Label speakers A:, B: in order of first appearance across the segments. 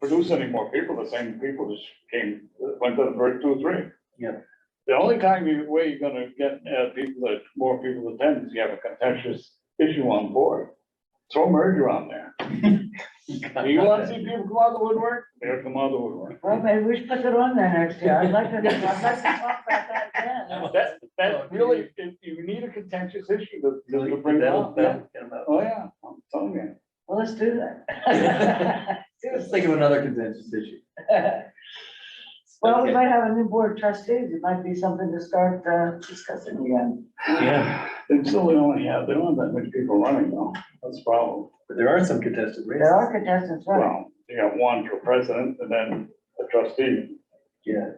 A: produce any more people, the same people just came, went to the first two, or three.
B: Yeah.
A: The only time you, way you're gonna get, uh, people that, more people attend, is you have a contentious issue on board. Throw merger on there. Do you wanna see people come out of the woodwork? They'll come out of the woodwork.
C: Well, maybe we should put it on there next year. I'd like to, I'd like to talk about that again.
A: That's, that's really, if you need a contentious issue to, to bring it
B: That'll-
A: up.
B: that'll get 'em out.
A: Oh, yeah, I'm telling you.
C: Well, let's do that.
B: Let's think of another contentious issue.
C: Well, we might have a new board of trustees. It might be something to start uh, discussing again.
A: Yeah. They still only have, they don't have that many people running though, that's the problem.
B: But there are some contested
C: There
B: races.
C: are contestants, right?
A: Well, you got one for president and then a trustee,
B: Yeah.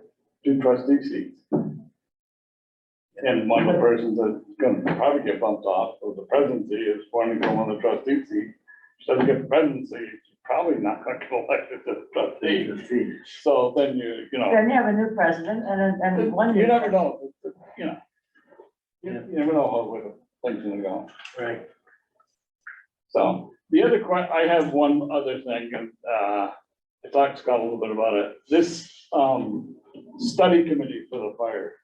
A: two trustee seats. And one of the persons that's gonna probably get bumped off of the presidency is wanting to go on the trustee seat. She doesn't get the presidency, she's probably not gonna get elected to the trustee.
B: Let's see.
A: So then you, you know,
C: Then you have a new president and, then- and one.
A: you
C: new-
A: never know, you know. You
B: Yeah.
A: you never know how, where the things are gonna go.
B: Right.
A: So the other que- I have one other thing, and uh, I talked to Scott a little bit about it. This um, study committee for the fire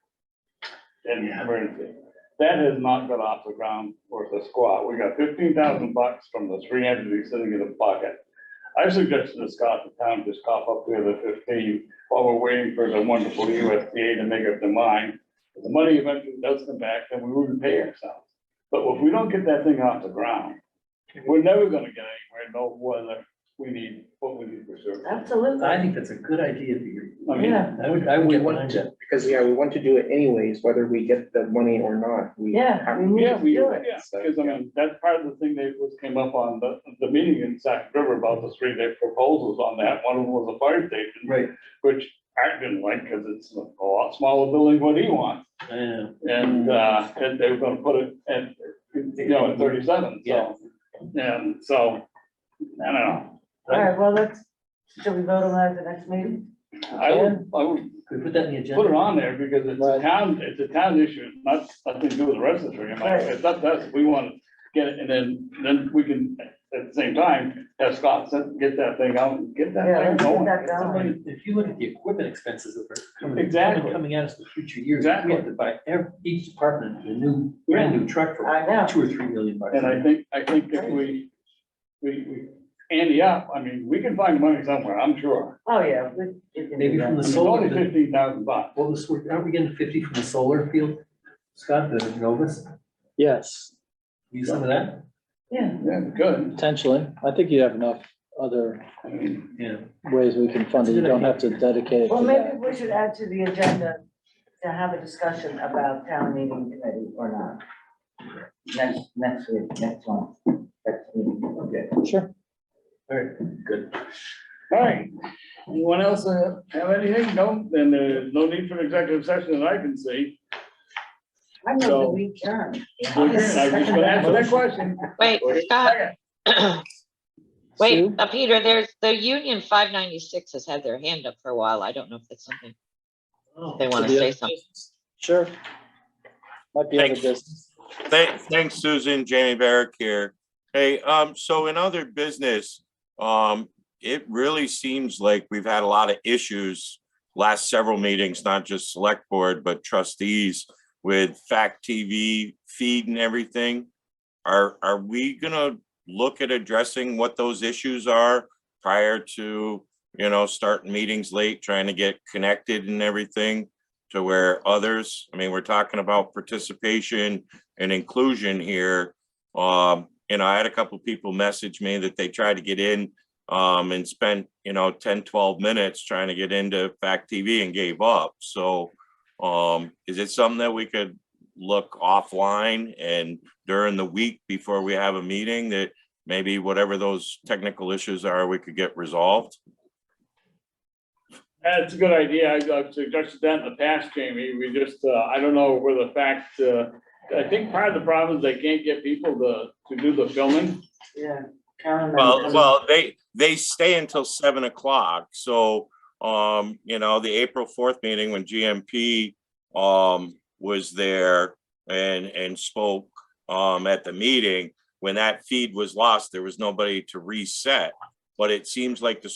A: and
B: Yeah.
A: emergency, that has not got off the ground worth a squat. We got fifteen thousand bucks from the three entities sitting in the pocket. I suggested to Scott the town just cough up the other fifteen while we're waiting for the wonderful USDA to make up their mind. If the money eventually does come back, then we wouldn't pay ourselves. But if we don't get that thing off the ground, we're never gonna get anywhere, know whether we need, what we need for service.
C: Absolutely.
B: I think that's a good idea, Peter.
A: I mean,
C: Yeah.
B: I would, I would
D: We
B: want
D: want
B: to.
D: to, because, yeah, we want to do it anyways, whether we get the money or not. We
C: Yeah,
D: have-
C: we need
A: yeah,
C: to
A: we,
C: do it.
A: yeah, because I mean, that's part of the thing that was came up on the, the meeting in Sac River about the three day proposals on that. One of them was a fire station,
B: Right.
A: which Art didn't like, cause it's a lot smaller building than what he wants.
B: I know.
A: And, uh, and they were gonna put it at, you know, at thirty-seven, so, and so, I don't know.
C: All right, well, let's, should we vote on that at the next meeting?
A: I would, I would
B: Could we put that in the
A: put it
B: agenda?
A: on there because it's a
D: Right.
A: town, it's a town issue, it's not, nothing to do with the rest of the tree.
C: Right.
A: It's up to us, we want to get it, and then, then we can, at the same time, have Scott send- get that thing out and get that
C: Yeah,
A: thing
C: let's get
A: going.
C: that
A: It's
C: going.
A: somebody-
B: If you look at the equipment expenses that are coming,
A: Exactly.
B: coming at us in the future years, we have
A: Exactly.
B: to buy every, each department, a new, brand new truck for
C: I know.
B: two or three million bucks.
A: And I think, I think if we, we, we, Andy up, I mean, we can find money somewhere, I'm sure.
C: Oh, yeah. we- you can do
B: Maybe
C: that.
B: from the
A: It's
B: solar,
A: only
B: the-
A: fifteen thousand bucks.
B: what was, aren't we getting fifty from the solar field? Scott, the Novus,
E: Yes,
B: use some of that?
C: Yeah,
A: Yeah, good.
E: potentially. I think you have enough other
A: I mean,
B: Yeah.
E: ways we can fund it. You don't have to dedicate it
C: well,
E: to
C: maybe
E: that.
C: we should add to the agenda to have a discussion about town meeting committee or not. Next, next week, next month, next meeting.
B: Okay,
E: Sure.
B: all right, good.
A: All right, anyone else uh, have anything? No, then there's no need for an executive session that I can see.
C: I know
A: So-
C: that we can.
A: So again, I was just gonna answer that question.
F: Wait,
A: Wait.
F: Scott, wait,
E: Sue?
F: uh, Peter, there's, the Union five ninety-six has had their hand up for a while. I don't know if that's something, if they want to
E: Oh. the
F: say
E: other
F: something.
E: Sure. Might be other business.
G: Thank- Thanks, Susan. Jamie Barrick here. Hey, um, so in other business, um, it really seems like we've had a lot of issues last several meetings, not just select board, but trustees with fact TV feed and everything. Are, are we gonna look at addressing what those issues are prior to, you know, starting meetings late, trying to get connected and everything? To where others, I mean, we're talking about participation, and inclusion here. Um, you know, I had a couple people message me that they tried to get in um and spent, you know, 10, 12 minutes trying to get into Fact TV and gave up. So um, is it something that we could look offline and during the week before we have a meeting that maybe whatever those technical issues are, we could get resolved?
A: That's a good idea. I- I've suggested that in the past, Jamie. We just, uh, I don't know where the fact, uh, I think part of the problem is they can't get people to, to do the filming.
C: Yeah. Karen,
G: Well,
C: um,
G: well, they, they stay until seven o'clock, so, um, you know, the April fourth meeting when GMP um, was there and, and spoke um, at the meeting, when that feed was lost, there was nobody to reset. But it seems like the